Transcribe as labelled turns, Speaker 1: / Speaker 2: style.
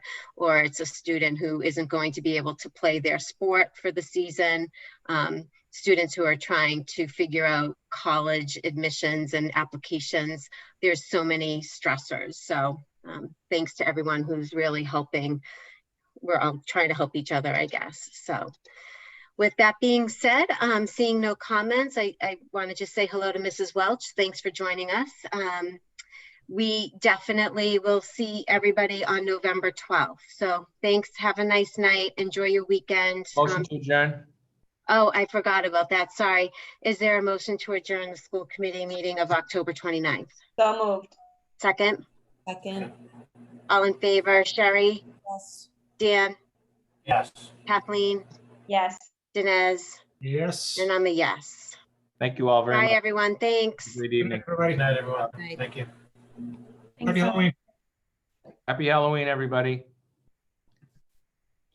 Speaker 1: or it's a student who isn't going to be able to play their sport for the season. Um, students who are trying to figure out college admissions and applications. There's so many stressors. So um, thanks to everyone who's really helping. We're all trying to help each other, I guess. So with that being said, um, seeing no comments, I, I want to just say hello to Mrs. Welch. Thanks for joining us. Um, we definitely will see everybody on November 12th. So thanks. Have a nice night. Enjoy your weekend.
Speaker 2: Motion
Speaker 1: Um,
Speaker 2: to adjourn.
Speaker 1: Oh, I forgot about that. Sorry. Is there a motion to adjourn the school committee meeting of October 29th?
Speaker 3: So moved.
Speaker 1: Second,
Speaker 3: Second.
Speaker 1: all in favor, Sherry,
Speaker 3: Yes.
Speaker 1: Dan,
Speaker 4: Yes.
Speaker 1: Kathleen,
Speaker 3: Yes.
Speaker 1: Dinesh,
Speaker 4: Yes.
Speaker 1: and I'm a yes.
Speaker 2: Thank you all very
Speaker 1: Bye,
Speaker 2: much.
Speaker 1: everyone. Thanks.
Speaker 2: Good
Speaker 4: Good night,
Speaker 2: evening.
Speaker 4: everybody. Night, everyone.
Speaker 3: Night.
Speaker 4: Thank you.
Speaker 3: Thanks
Speaker 4: Happy
Speaker 3: so much.
Speaker 4: Halloween.
Speaker 2: Happy Halloween, everybody.